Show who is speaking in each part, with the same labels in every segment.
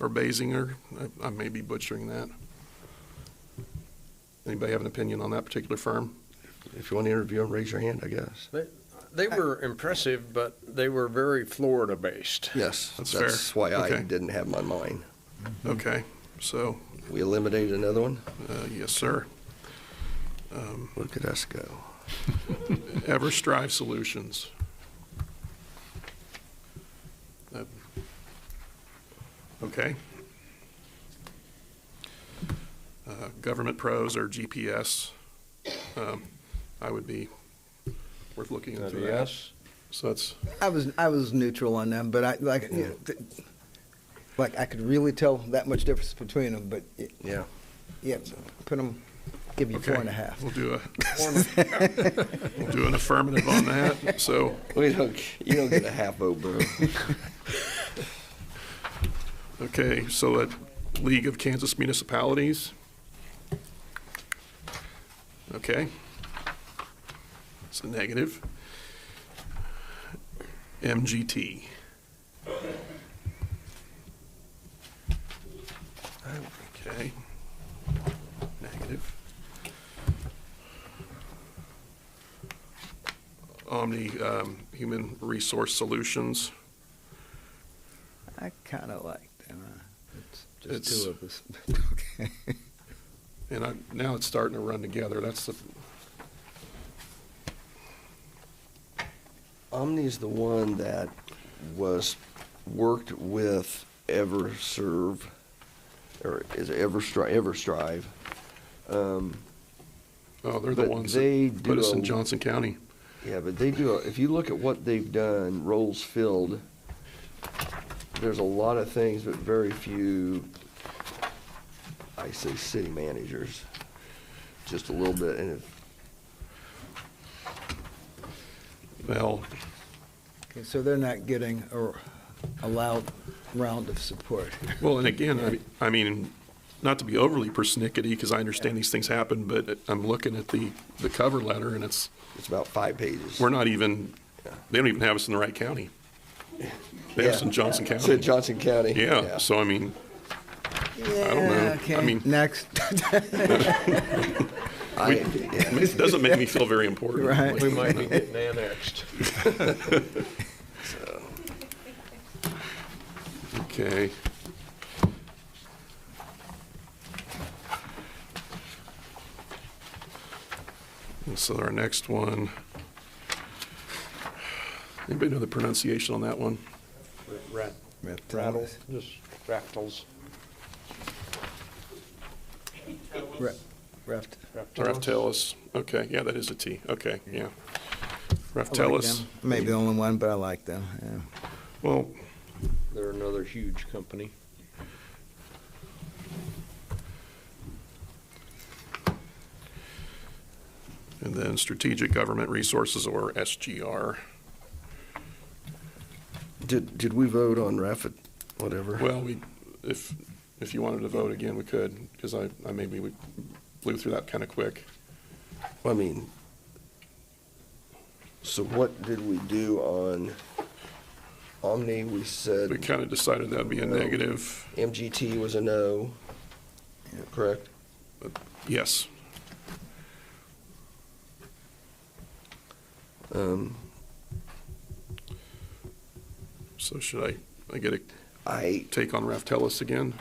Speaker 1: or Basinger. I- I may be butchering that. Anybody have an opinion on that particular firm?
Speaker 2: If you want to interview them, raise your hand, I guess.
Speaker 3: They were impressive, but they were very Florida based.
Speaker 2: Yes,
Speaker 1: That's
Speaker 2: that's
Speaker 1: fair.
Speaker 2: why I
Speaker 1: Okay.
Speaker 2: didn't have my mind.
Speaker 4: Mm-hmm.
Speaker 1: Okay, so,
Speaker 2: We eliminated another one?
Speaker 1: uh, yes, sir. Um,
Speaker 2: Look at us go.
Speaker 1: Ever Strive Solutions. That- Okay. Uh, Government Pros or GPS, um, I would be worth looking into that. So that's,
Speaker 4: I was I was neutral on them, but I like you know, th- like I could really tell that much difference between them. But y-
Speaker 2: Yeah.
Speaker 4: yeah, put them, give you
Speaker 1: okay.
Speaker 4: four and a half.
Speaker 1: We'll do a, we'll do an affirmative on that, so.
Speaker 2: We don't, you don't get a half vote, bro.
Speaker 1: Okay, so at League of Kansas Municipalities. Okay. It's a negative. MGT. Okay. Negative. Omni um, Human Resource Solutions.
Speaker 4: I kind of like them. Uh, It's just
Speaker 1: It's-
Speaker 4: two of us. okay.
Speaker 1: And I, now it's starting to run together. That's the,
Speaker 2: Omni's the one that was, worked with EverServe, or is it EverStri, EverStrive? Um,
Speaker 1: oh, they're the
Speaker 2: But
Speaker 1: ones
Speaker 2: they
Speaker 1: that put us
Speaker 2: do
Speaker 1: in
Speaker 2: a-
Speaker 1: Johnson County.
Speaker 2: Yeah, but they do, if you look at what they've done, roles filled, there's a lot of things, but very few, I say city managers, just a little bit, and if,
Speaker 1: Well,
Speaker 4: okay, so they're not getting a, a loud round of support.
Speaker 1: well, and again, I, I mean, not to be overly persnickety, because I understand these things happen, but I'm looking at the, the cover letter and it's,
Speaker 2: it's about five pages.
Speaker 1: we're not even, they don't even have us in the right county. They have us in
Speaker 2: Yeah.
Speaker 1: Johnson
Speaker 2: It's in
Speaker 1: County.
Speaker 2: Johnson County.
Speaker 1: Yeah, so I mean,
Speaker 4: Yeah,
Speaker 1: don't know. I
Speaker 4: Okay.
Speaker 1: mean-
Speaker 4: next,
Speaker 2: I, yeah,
Speaker 1: it doesn't make me feel very important.
Speaker 4: Right.
Speaker 3: We might be getting annexed.
Speaker 1: Okay. And so our next one, anybody know the pronunciation on that one?
Speaker 3: Rat, rattle,
Speaker 4: reptiles.
Speaker 3: just rattles.
Speaker 4: Re- rept-
Speaker 1: Raftellus, okay, yeah, that is a T, okay, yeah.
Speaker 4: I like
Speaker 1: Raftellus,
Speaker 4: them. Maybe the only one, but I like them. Yeah.
Speaker 1: well,
Speaker 3: They're another huge company.
Speaker 1: and then Strategic Government Resources, or SGR.
Speaker 2: did, did we vote on Raffet, whatever?
Speaker 1: Well, we, if, if you wanted to vote again, we could, because I, I maybe we blew through that kind of quick.
Speaker 2: I mean, so what did we do on Omni? We
Speaker 1: We
Speaker 2: said
Speaker 1: kind of decided that'd be a negative,
Speaker 2: MGT was a no, correct?
Speaker 1: yes.
Speaker 2: Um,
Speaker 1: So should I, I get a
Speaker 2: I,
Speaker 1: take on Raftellus again?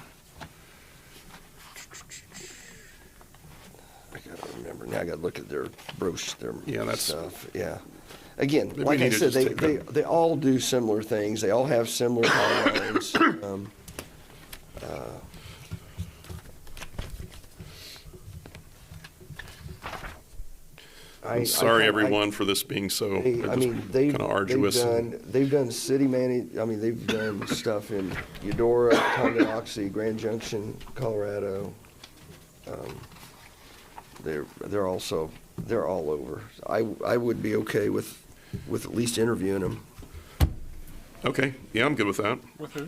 Speaker 2: I gotta remember now. I gotta look at their brooch, their
Speaker 1: Yeah, that's-
Speaker 2: stuff. Yeah. Again,
Speaker 1: Maybe we
Speaker 2: like I
Speaker 1: need to
Speaker 2: said,
Speaker 1: just
Speaker 2: they,
Speaker 1: take
Speaker 2: they,
Speaker 1: them.
Speaker 2: they all do similar things. They all have similar outlines. Um, uh, I- I
Speaker 1: I'm sorry,
Speaker 2: kinda- I-
Speaker 1: everyone, for this being so,
Speaker 2: They, I mean, they've,
Speaker 1: kind of
Speaker 2: they've
Speaker 1: arduous. and-
Speaker 2: done, they've done city manage, I mean, they've done stuff in Eudora, Tonganoxie, Grand Junction, Colorado. Um, They're, they're also, they're all over. I, I would be okay with, with at least interviewing them.
Speaker 1: Okay, yeah, I'm good with that.
Speaker 3: With who?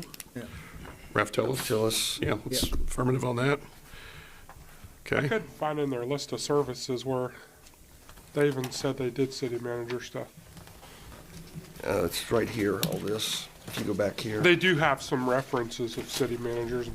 Speaker 1: Raftellus,
Speaker 2: Phyllis,
Speaker 1: yeah, let's affirmative on that.
Speaker 5: I
Speaker 1: Okay,
Speaker 5: could find in their list of services where they even said they did city manager stuff.
Speaker 2: uh, it's right here, all this. if you go back here.
Speaker 5: They do have some references of city managers